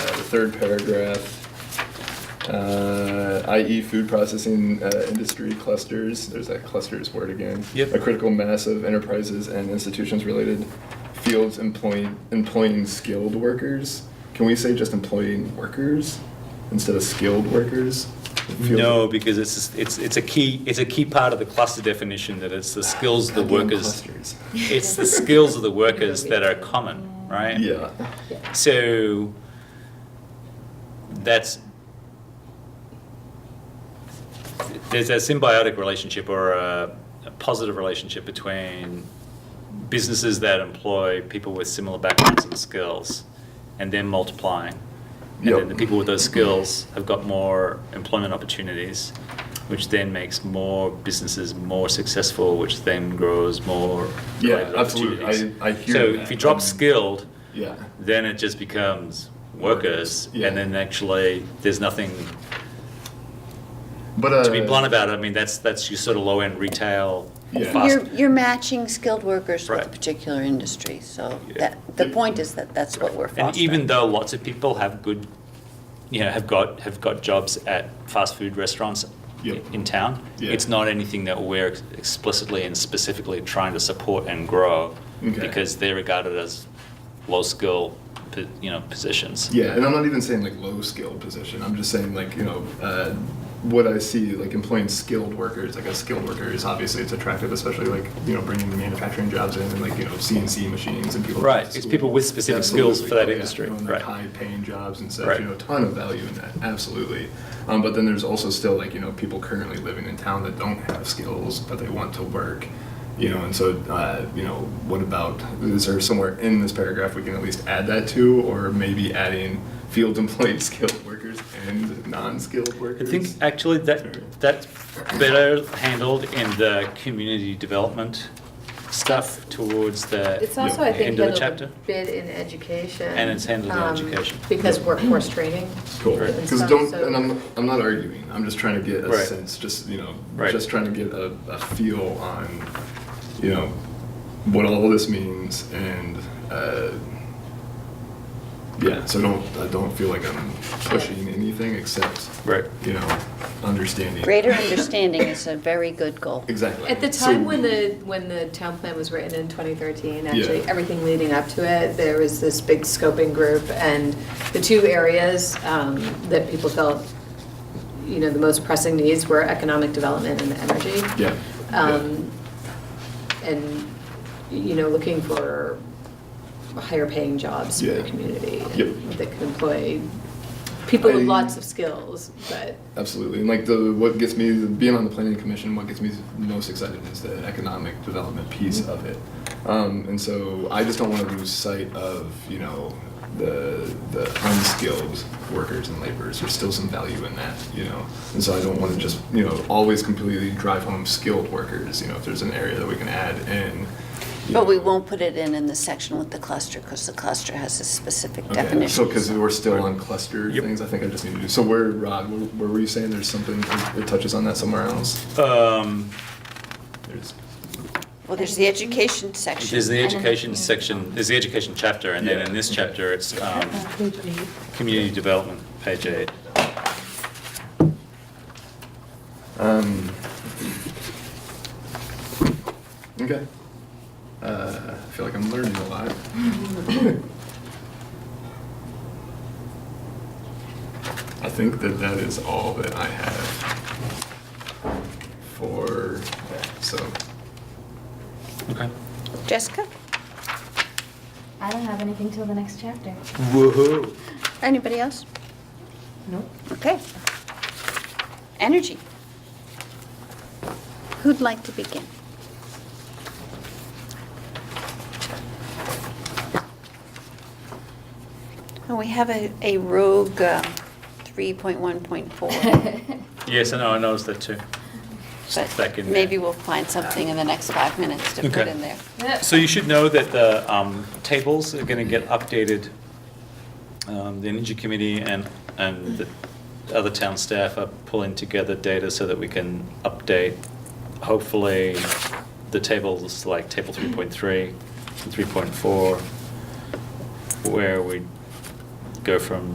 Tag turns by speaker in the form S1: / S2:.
S1: Uh, third paragraph. Uh, i.e. food processing uh, industry clusters, there's that clusters word again.
S2: Yep.
S1: A critical mass of enterprises and institutions related fields employing, employing skilled workers. Can we say just employing workers instead of skilled workers? Fields-
S2: No, because it's, it's, it's a key, it's a key part of the cluster definition that it's the skills of the
S1: Goddamn
S2: workers.
S1: clusters.
S2: It's the skills of the workers that are common, right?
S1: Yeah,
S2: So that's there's a symbiotic relationship or a, a positive relationship between businesses that employ people with similar backgrounds and skills and then multiplying. And
S1: Yep.
S2: then the people with those skills have got more employment opportunities, which then makes more businesses more successful, which then grows more
S1: Yeah,
S2: related
S1: absolutely. I-
S2: opportunities.
S1: I hear
S2: so
S1: that.
S2: if you drop
S1: Um,
S2: skilled,
S1: yeah.
S2: then it just becomes workers,
S1: Yeah.
S2: and then actually there's nothing
S1: But uh,
S2: to be blunt about. I mean, that's that's your sort of low end retail,
S1: Yeah.
S2: fast.
S3: You're, you're matching skilled workers with a
S2: Right.
S3: particular industry, so
S2: Yeah.
S3: that, the point is that that's what we're fostering.
S2: and even though lots of people have good, you know, have got have got jobs at fast food restaurants
S1: Yep.
S2: in town,
S1: Yeah.
S2: it's not anything that we're ex- explicitly and specifically trying to support and grow
S1: Okay.
S2: because they're regarded as low skill, po- you know, positions.
S1: Yeah, and I'm not even saying like low skilled position. I'm just saying like you know uh, what I see like employing skilled workers. Like a skilled worker is obviously it's attractive, especially like you know bringing the manufacturing jobs in and like you know CNC machines and people.
S2: Right, it's people with specific skills
S1: Oh,
S2: for that industry, right.
S1: High paying jobs and such.
S2: Right.
S1: You know, a ton of value in that. Absolutely. Um, but then there's also still like you know people currently living in town that don't have skills but they want to work. You know, and so uh, you know, what about is there somewhere in this paragraph we can at least add that to, or maybe adding field employed skilled workers and non-skilled
S2: I
S1: workers?
S2: think actually
S1: Sorry.
S2: that, that's better handled in the community development stuff towards the.
S4: It's also, I think,
S2: End of the
S4: handled a
S2: chapter.
S4: bit in education.
S2: And it's handled in
S4: um,
S2: education.
S4: Because workforce training.
S1: Cool.
S2: Right.
S4: and
S1: Because
S4: stuff,
S1: don't,
S4: so-
S1: and I'm, I'm not arguing. I'm just trying to get a
S2: Right.
S1: sense, just you know,
S2: Right.
S1: just trying to get a, a feel on, you know, what all this means and. Uh, yeah, so I don't I don't feel like I'm pushing anything except
S2: Right.
S1: you know understanding
S3: Greater understanding is a very good goal.
S1: exactly
S4: At the
S1: So-
S4: time when the, when the town plan was written in 2013, actually,
S1: Yeah.
S4: everything leading up to it, there was this big scoping group, and the two areas um, that people felt, you know, the most pressing needs were economic development and energy.
S1: yeah, yeah.
S4: Um, And, you know, looking for higher paying jobs in the
S1: Yeah.
S4: community. and
S1: Yep.
S4: That could employ people with
S1: I-
S4: lots of skills, but,
S1: Absolutely, and like the what gets me being on the planning commission, what gets me most excited is the economic development piece of it. Um, and so I just don't want to lose sight of you know the the unskilled workers and laborers. There's still some value in that, you know. And so I don't want to just you know always completely drive home skilled workers. You know, if there's an area that we can add in. you
S3: But we
S1: know.
S3: won't put it in in the section with the cluster, because the cluster has a specific
S1: Okay,
S3: definition.
S1: So, because we're still on cluster
S2: Yep.
S1: things, I think I just need to do, so where, Rod, where where were you saying there's something that touches on that somewhere else?
S2: Um,
S1: There's-
S3: Well, there's the education section.
S2: there's the education section, there's the education chapter, and then in this chapter, it's, um, community development, page eight.
S1: Um, okay. Uh, I feel like I'm learning a lot. I think that that is all that I have for that, so.
S2: Okay.
S3: Jessica,
S5: I don't have anything till the next chapter.
S2: Woohoo.
S3: anybody else?
S5: Nope.
S3: Okay. Energy. Who'd like to begin? Oh, we have a a rogue um, 3.1.4,
S2: Yes, I know, I noticed that too. Stuck
S3: but
S2: in there.
S3: maybe we'll find something in the next five minutes to put
S2: Okay.
S3: in there.
S2: So you should know that the um, tables are going to get updated. Um, The Energy Committee and, and the other town staff are pulling together data so that we can update, hopefully, the tables like table 3.3 and 3.4, where we go from